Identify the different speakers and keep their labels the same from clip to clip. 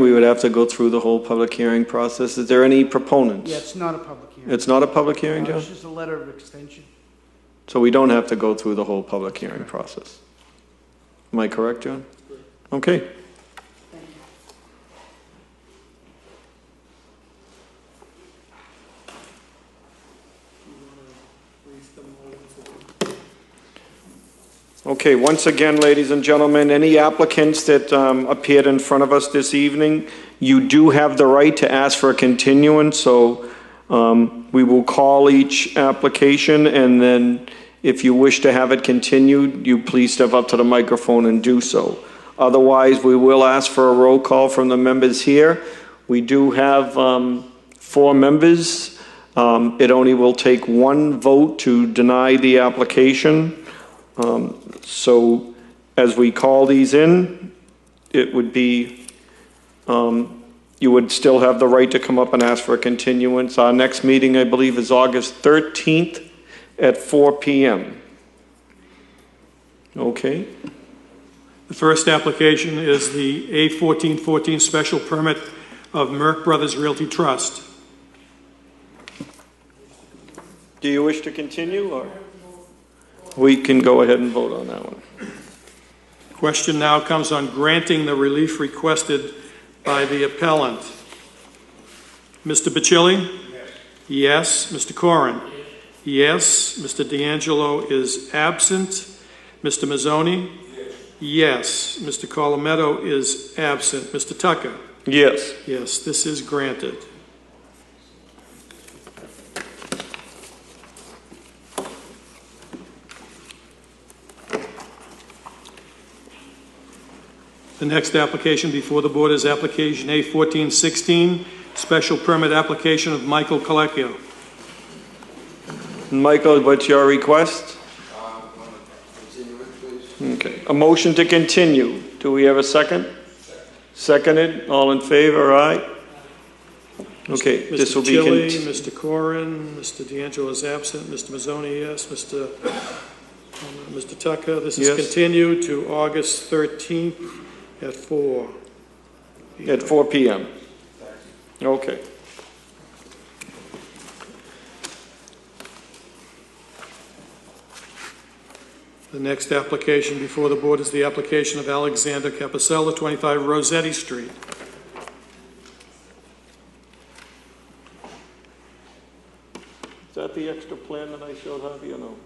Speaker 1: We would have to go through the whole public hearing process. Is there any proponents?
Speaker 2: Yeah, it's not a public hearing.
Speaker 1: It's not a public hearing,
Speaker 2: Uh,
Speaker 1: John?
Speaker 2: It's just a letter of extension.
Speaker 1: So we don't have to go through the whole public hearing process. Am I correct, John? Okay. Okay, once again, ladies and gentlemen, any applicants that um, appeared in front of us this evening, you do have the right to ask for a continuance, so um, we will call each application, and then if you wish to have it continued, you please step up to the microphone and do so. Otherwise, we will ask for a roll call from the members here. We do have um, four members. Um, It only will take one vote to deny the application. Um, So as we call these in, it would be, um, you would still have the right to come up and ask for a continuance. Our next meeting, I believe, is August 13th at 4 PM. Okay,
Speaker 3: The first application is the A1414 special permit of Merck Brothers Realty Trust.
Speaker 1: do you wish to continue, or? We can go ahead and vote on that one.
Speaker 3: Question now comes on granting the relief requested by the appellant. Mr. Bacilli? Yes. Mr. Corrin? Yes. Mr. D'Angelo is absent. Mr. Mazzoni? Yes. Mr. Colometto is absent. Mr. Tucker?
Speaker 1: Yes.
Speaker 3: Yes, this is granted. The next application before the board is application A fourteen sixteen, special permit application of Michael Colecchio.
Speaker 1: Michael, what's your request? Okay, a motion to continue. Do we have a second? Seconded, all in favor, aye? Okay, this will be,
Speaker 3: Mr. Chili,
Speaker 1: con-
Speaker 3: Mr. Corin, Mr. D'Angelo is absent, Mr. Mazzoni, yes, Mr. um, Mr. Tucker, this is
Speaker 1: Yes.
Speaker 3: continued to August 13th at 4.
Speaker 1: at 4 PM. Okay.
Speaker 3: The next application before the board is the application of Alexander Capicella, 25 Rosetti Street.
Speaker 1: Is that the extra plan that I showed Javi or no?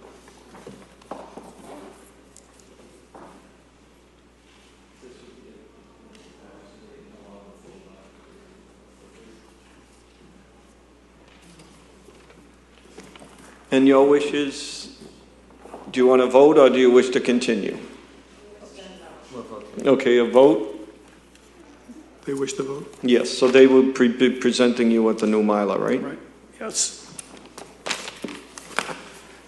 Speaker 1: And your wishes, do you want to vote or do you wish to continue? Okay, a vote?
Speaker 3: They wish to vote?
Speaker 1: Yes, so they will pre- be presenting you with the new Mylar, right?
Speaker 3: Right. Yes.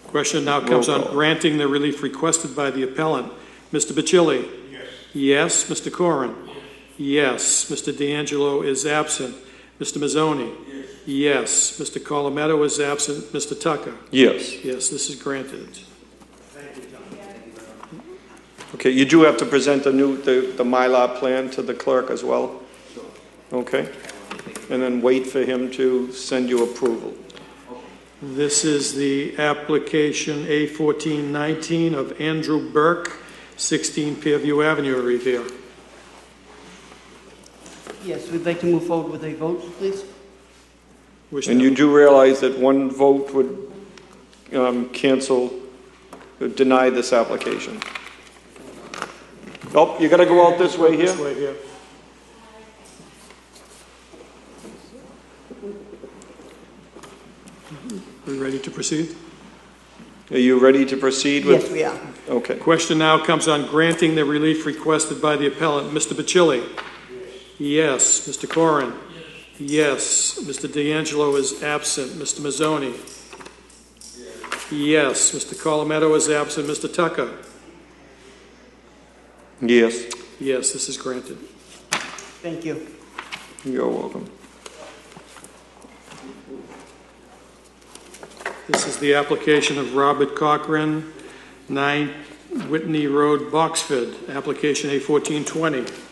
Speaker 3: Question now comes
Speaker 1: Roll
Speaker 3: on
Speaker 1: call.
Speaker 3: granting the relief requested by the appellant. Mr. Bacilli? Yes. Yes, Mr. Corrin? Yes, Mr. D'Angelo is absent. Mr. Mazzoni? Yes. Yes, Mr. Colometto is absent. Mr. Tucker?
Speaker 1: Yes.
Speaker 3: Yes, this is granted.
Speaker 1: Okay, you do have to present the new, the, the Mylar plan to the clerk as well? Okay? And then wait for him to send you approval.
Speaker 3: This is the application A1419 of Andrew Burke, 16 Fairview Avenue, Revere.
Speaker 2: Yes, we'd like to move forward with a vote, please.
Speaker 3: Wish
Speaker 1: And
Speaker 3: to-
Speaker 1: you do realize that one vote would, um, cancel, deny this application? Nope, you gotta go out this way here?
Speaker 3: This way here. We ready to proceed?
Speaker 1: Are you ready to proceed
Speaker 2: Yes,
Speaker 1: with?
Speaker 2: we are.
Speaker 1: Okay.
Speaker 3: Question now comes on granting the relief requested by the appellant. Mr. Bacilli? Yes. Mr. Corrin? Yes. Mr. D'Angelo is absent. Mr. Mazzoni? Yes. Mr. Colometto is absent. Mr. Tucker?
Speaker 1: Yes.
Speaker 3: Yes, this is granted.
Speaker 2: Thank you.
Speaker 1: You're welcome.
Speaker 3: This is the application of Robert Cochran, 9 Whitney Road, Boxford, application A1420.